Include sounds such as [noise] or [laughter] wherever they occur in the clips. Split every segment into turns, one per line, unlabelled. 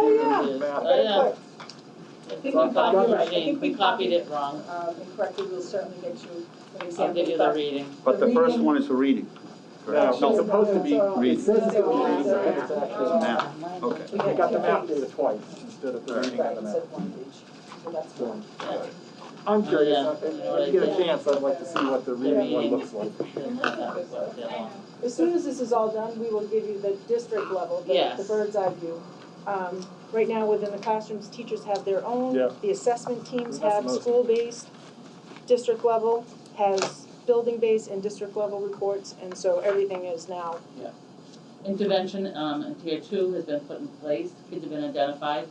Oh,
Oh,
Oh, it.
We
So I
can copy
copied
it. I
Jean,
think
we
we copied
copied it wrong.
Um, incorrectly, we'll certainly get you an example.
I'll give you the
but-
reading.
But the first
reading-
one is for reading.
No,
correct?
it's supposed to be
read.
It says it was read, but it's
Uh,
actually map.
Map, okay.
We
I
had
got the
two
map
pages.
data twice instead of the reading
Right,
on the
it
map.
said one page, so that's one.
I'm
Oh,
curious,
yeah.
if if you get a chance, I'd like to see what the reading one looks like.
As soon as this is all done, we will give you the district level, the, the
Yes.
bird's eye view. Um, right now, within the classrooms, teachers have their own.
Yeah.
The assessment teams
That's
have
most-
school-based, district level has building-based and district level reports, and so everything is now.
Intervention, um, in tier two has been put in place, kids have been identified,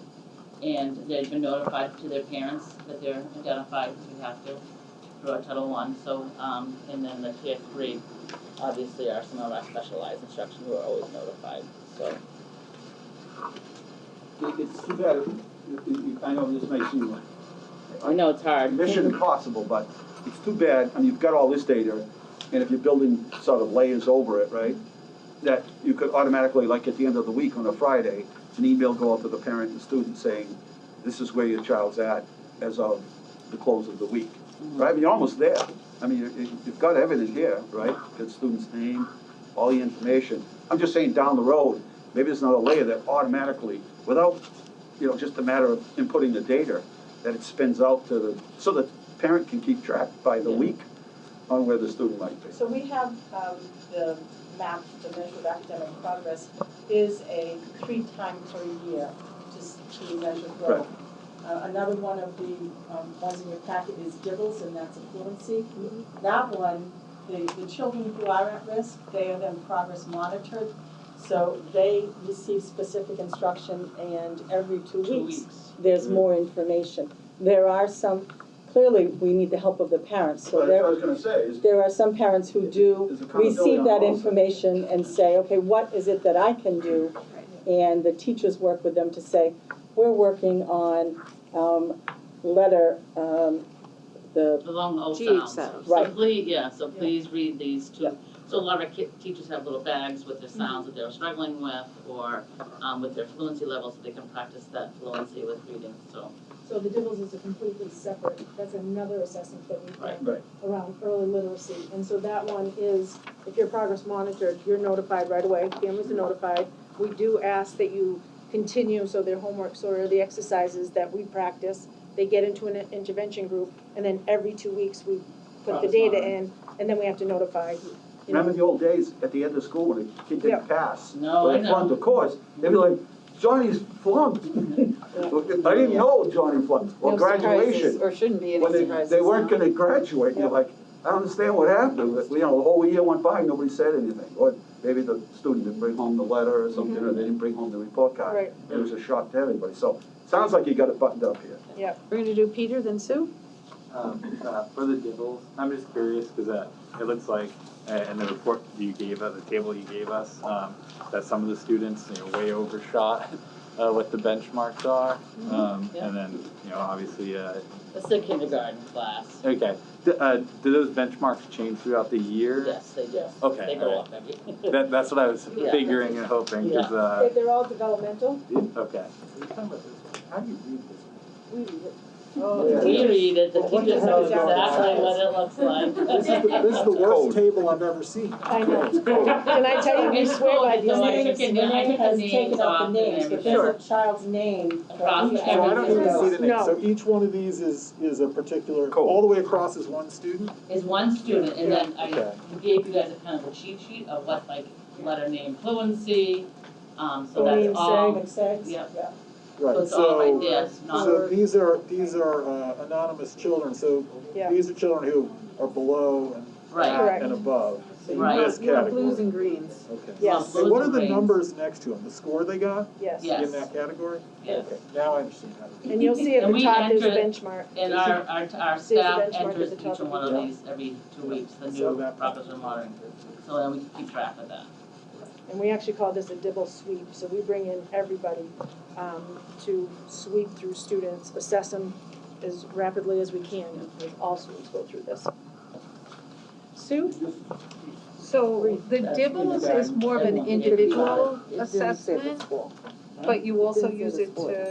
and they've been notified to their parents that they're identified, we have to, through our Title One, so, um, and then the tier three, obviously, are some of our specialized instruction who are always notified, so.
It- It's too bad, if- if you- I know this may seem like
I know it's hard.
mission impossible, but it's too bad, I mean, you've got all this data, and if you're building sort of layers over it, right? That you could automatically, like at the end of the week on a Friday, an email go out to the parent and student saying, this is where your child's at as of the close of the week, right? I mean, you're almost there. I mean, you- you- you've got everything here, right? Got student's name, all the information. I'm just saying down the road, maybe there's another layer that automatically, without, you know, just a matter of inputting the data, that it spins out to the, so that parent can keep track by the
Yeah.
week on where the student might be.
So we have, um, the map, the measure of academic progress is a three time per year, just to measure growth. Uh, another one of the, um, ones in your packet is Dibbles, and that's a fluency. That one, the, the children who are at risk, they are then progress monitored. So they receive specific instruction and every
Two weeks.
there's more information. There are some, clearly, we need the help of the parents, so there,
was gonna say, is,
there are some parents who do
There's accountability
receive
on
that
both.
information and say, okay, what is it that I can do? And the teachers work with them to say, we're working on, um, letter, um, the,
The long O
GH
sounds.
sounds.
So
Right.
please, yeah, so please read these
Yeah.
two. So a lot of our ki- teachers have little bags with their sounds that they're struggling with or um, with their fluency levels, so they can practice that fluency with reading, so.
So the Dibbles is a completely separate, that's another assessment that we've
Right.
done
right,
around early literacy.
And so that one is, if your progress monitored, you're notified right away, families are notified. We do ask that you continue, so their homeworks or the exercises that we practice, they get into an intervention group, and then every two weeks, we put the
Progress
data
monitor.
in, and then we have to notify, you know.
Remember the old days, at the end of school, when a kid
Yeah.
didn't pass?
No, Oh, I
When they flunked the
know.
course, they'd be like, Johnny's flunked. [laughs] I didn't know Johnny flunked, or
No surprises,
graduation.
Or shouldn't be any
When they,
surprises.
they weren't
no.
gonna graduate, you're like, I don't understand what happened, But, you know, the whole year went by, nobody said anything. Or maybe the student didn't bring home the letter or something, or they didn't bring home the report card.
Right.
It was a shock to everybody, so, sounds like you got it buttoned up here.
We're gonna do Peter, then Sue?
Um, uh, for the dibbles, I'm just curious because uh, it looks like, uh, in the report you gave us, the table you gave us, um, that some of the students you know, way overshot [laughs] uh, what the benchmarks are, um,
Mm-hmm. yeah.
and then you know obviously, uh,
It's the kindergarten class.
okay. D- uh, do those benchmarks change throughout the year?
Yes, they do.
Okay,
They go up every.
That, that's what I was
Yeah.
figuring and hoping because uh,
If they're all developmental,
okay.
How do you read this?
we,
Yeah.
We read it, the
Well, what the
teachers
hell
know
is going on?
exactly what it looks like.
[laughs] This is the, this is the
Code.
worst table I've ever seen.
I know, can I tell you, we swear by these
So I
things.
took it, I took the
has
names
taken
off
out
and
the names,
everything.
but there's a child's name.
Across
each
So I don't even see the name,
No.
so each one of these is, is a particular,
Code.
all the way across is one student?
is one student, and then I
Okay.
gave you guys a kind of a cheat sheet of what like letter name fluency, um, so
Name
that's all,
Makes sense?
Yep.
Yeah.
so
Right,
it's all right
so,
there, it's not.
so these are, these are uh, anonymous children, so
Yeah.
these are children who are below and,
Right,
Correct.
and above, in
Right.
this
You have blues
category.
and greens.
Okay.
Yes,
And what are
Blues
the
and
numbers next to them, the score they got
yes.
Yeah.
in
Yes.
that category?
yes.
Okay, now I understand how to do it.
And you'll see at
And
the
we
top there's
enter-
benchmark.
And our, our, our
See the
staff
benchmark at
enters
the
each
top of
one
the-
of these every two weeks, the
So
new
that-
Proposition Modern, so then we can keep track of that.
And we actually call this a dibble sweep, so we bring in everybody um, to sweep through students, assess them as rapidly as we can, and all students go through this. Sue?
So the Dibbles is more of an individual assessment, but you also use it to